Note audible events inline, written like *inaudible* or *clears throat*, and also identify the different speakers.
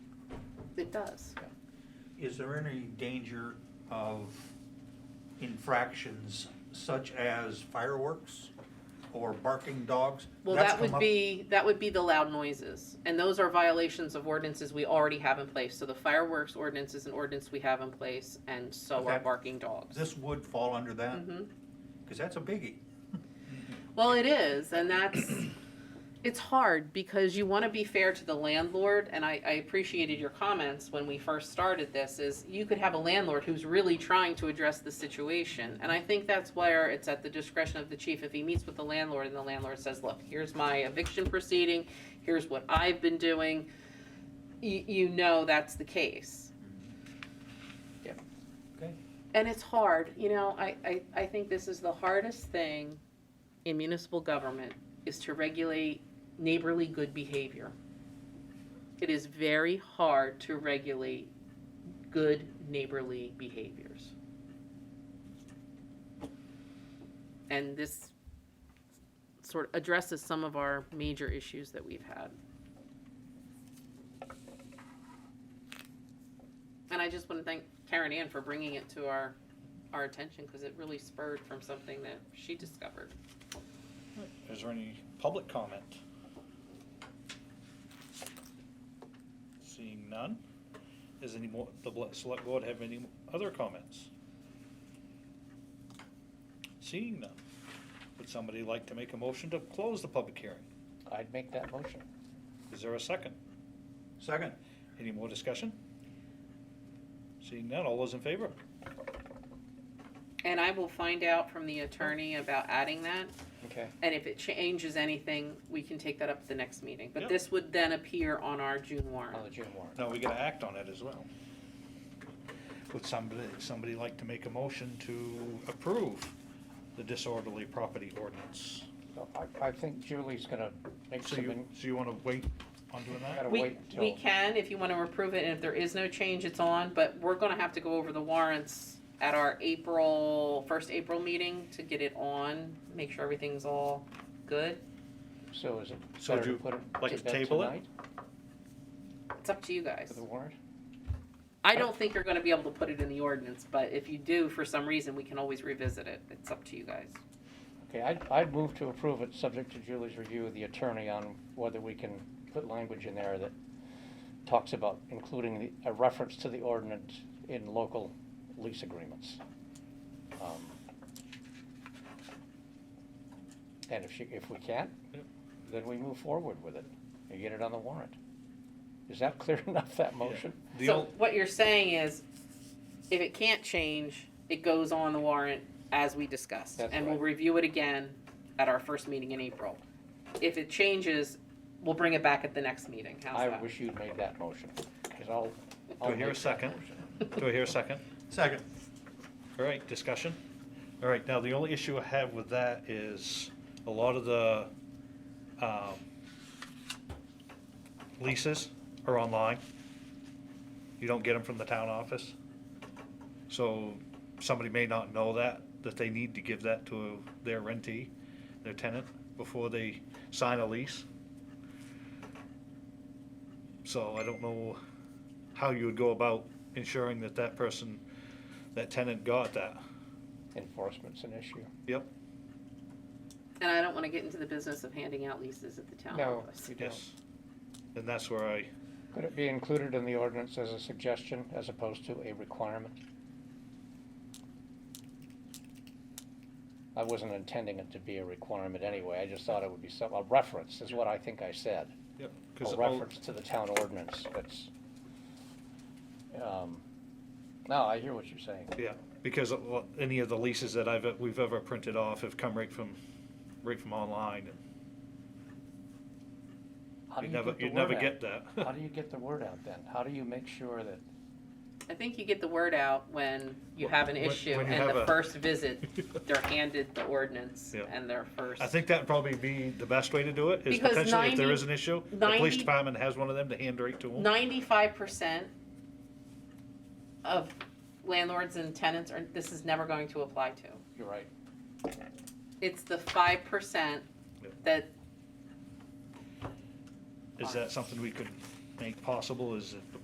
Speaker 1: it does.
Speaker 2: Is there any danger of infractions such as fireworks or barking dogs?
Speaker 1: Well,
Speaker 2: That's
Speaker 1: that would
Speaker 2: come up-
Speaker 1: be, that would be the loud noises, and those are violations of ordinances we already have in place, so the fireworks ordinance is an ordinance we have in place, and so are
Speaker 2: Okay.
Speaker 1: barking dogs.
Speaker 2: This would fall under that,
Speaker 1: Mhm.
Speaker 2: because that's a biggie.
Speaker 1: Well, it is, and that's *clears throat* it's hard because you want to be fair to the landlord, and I, I appreciated your comments when we first started this. Is you could have a landlord who's really trying to address the situation, and I think that's where it's at the discretion of the chief. If he meets with the landlord and the landlord says, "Look, here's my eviction proceeding, here's what I've been doing," you, you know that's the case.
Speaker 2: Okay.
Speaker 1: And it's hard, you know, I, I, I think this is the hardest thing in municipal government is to regulate neighborly good behavior. It is very hard to regulate good neighborly behaviors. And this sort of addresses some of our major issues that we've had. And I just want to thank Karen Ann for bringing it to our, our attention because it really spurred from something that she discovered.
Speaker 3: Is there any public comment? Seeing none, is any more, the bl- select board have any other comments? Seeing none, would somebody like to make a motion to close the public hearing?
Speaker 4: I'd make that motion.
Speaker 3: Is there a second?
Speaker 2: Second,
Speaker 3: Any more discussion? Seeing none, all those in favor?
Speaker 1: And I will find out from the attorney about adding that,
Speaker 4: Okay.
Speaker 1: and if it changes anything, we can take that up at the next meeting. But
Speaker 3: Yep.
Speaker 1: this would then appear on our June
Speaker 4: On the
Speaker 1: warrant.
Speaker 4: June warrant.
Speaker 3: Now we gotta act on it as well. Would somebody, somebody like to make a motion to approve the disorderly property ordinance?
Speaker 4: So I, I think Julie's gonna make
Speaker 3: So
Speaker 4: some,
Speaker 3: you,
Speaker 4: in-
Speaker 3: so you wanna wait on doing
Speaker 4: gotta
Speaker 3: that?
Speaker 1: We,
Speaker 4: wait
Speaker 1: we
Speaker 4: until,
Speaker 1: can, if you want to approve it, and if there is no change, it's on, but we're gonna have to go over the warrants at our April, first April meeting to get it on, make sure everything's all good.
Speaker 4: so is it
Speaker 3: So
Speaker 4: better
Speaker 3: do
Speaker 4: to
Speaker 3: you
Speaker 4: put it?
Speaker 3: like to
Speaker 4: did that
Speaker 3: table it?
Speaker 4: tonight
Speaker 1: It's up to you guys.
Speaker 4: For the warrant?
Speaker 1: I don't think you're gonna be able to put it in the ordinance, but if you do, for some reason, we can always revisit it. It's up to you guys.
Speaker 4: Okay, I'd, I'd move to approve it, subject to Julie's review of the attorney on whether we can put language in there that talks about including the, a reference to the ordinance in local lease agreements. Um, And if she, if we can't,
Speaker 3: Yep.
Speaker 4: then we move forward with it and get it on the warrant. Is that *laughs* clear enough, that motion?
Speaker 3: The
Speaker 1: So
Speaker 3: ol-
Speaker 1: what you're saying is, if it can't change, it goes on the warrant as we discussed.
Speaker 4: That's
Speaker 1: And we'll
Speaker 4: right.
Speaker 1: review it again at our first meeting in April. If it changes, we'll bring it back at the next meeting. How's
Speaker 4: I
Speaker 1: that?
Speaker 4: wish you'd made that motion, because I'll.
Speaker 3: Do I hear a second? Do I hear a second?
Speaker 2: second.
Speaker 3: All right, discussion? All right, now the only issue I have with that is a lot of the, um, leases are online. You don't get them from the town office. So somebody may not know that, that they need to give that to their rentee, their tenant, before they sign a lease. So I don't know how you would go about ensuring that that person, that tenant got that.
Speaker 4: Enforcement's an issue.
Speaker 3: Yep,
Speaker 1: And I don't wanna get into the business of handing out leases at the town
Speaker 4: No,
Speaker 1: office.
Speaker 4: you don't.
Speaker 3: yes. And that's where I,
Speaker 4: Could it be included in the ordinance as a suggestion as opposed to a requirement? I wasn't intending it to be a requirement anyway, I just thought it would be some, a reference is what I think I said.
Speaker 3: yep. 'cause
Speaker 4: A
Speaker 3: all-
Speaker 4: reference to the town ordinance that's, um, no, I hear what you're saying.
Speaker 3: Yeah, because of what- any of the leases that I've, we've ever printed off have come right from, right from online.
Speaker 4: How do
Speaker 3: You'd
Speaker 4: you
Speaker 3: never,
Speaker 4: get the
Speaker 3: you'd never
Speaker 4: word out?
Speaker 3: get that.
Speaker 4: How do you get the word out then? How do you make sure that,
Speaker 1: I think you get the word out when you have an
Speaker 3: When-
Speaker 1: issue
Speaker 3: when you
Speaker 1: and
Speaker 3: have
Speaker 1: the
Speaker 3: a-
Speaker 1: first
Speaker 3: *laughs*
Speaker 1: visit, they're handed the ordinance
Speaker 3: Yeah.
Speaker 1: and their first.
Speaker 3: I think that'd probably be the best way to do it, is
Speaker 1: Because
Speaker 3: potentially if there
Speaker 1: 90
Speaker 3: is an issue, the police
Speaker 1: 90
Speaker 3: department has one of them to hand right to them.
Speaker 1: Ninety-five percent of landlords and tenants are, this is never going to apply to.
Speaker 4: you're right,
Speaker 1: It's the five percent that,
Speaker 3: Is that something we could make possible, is if the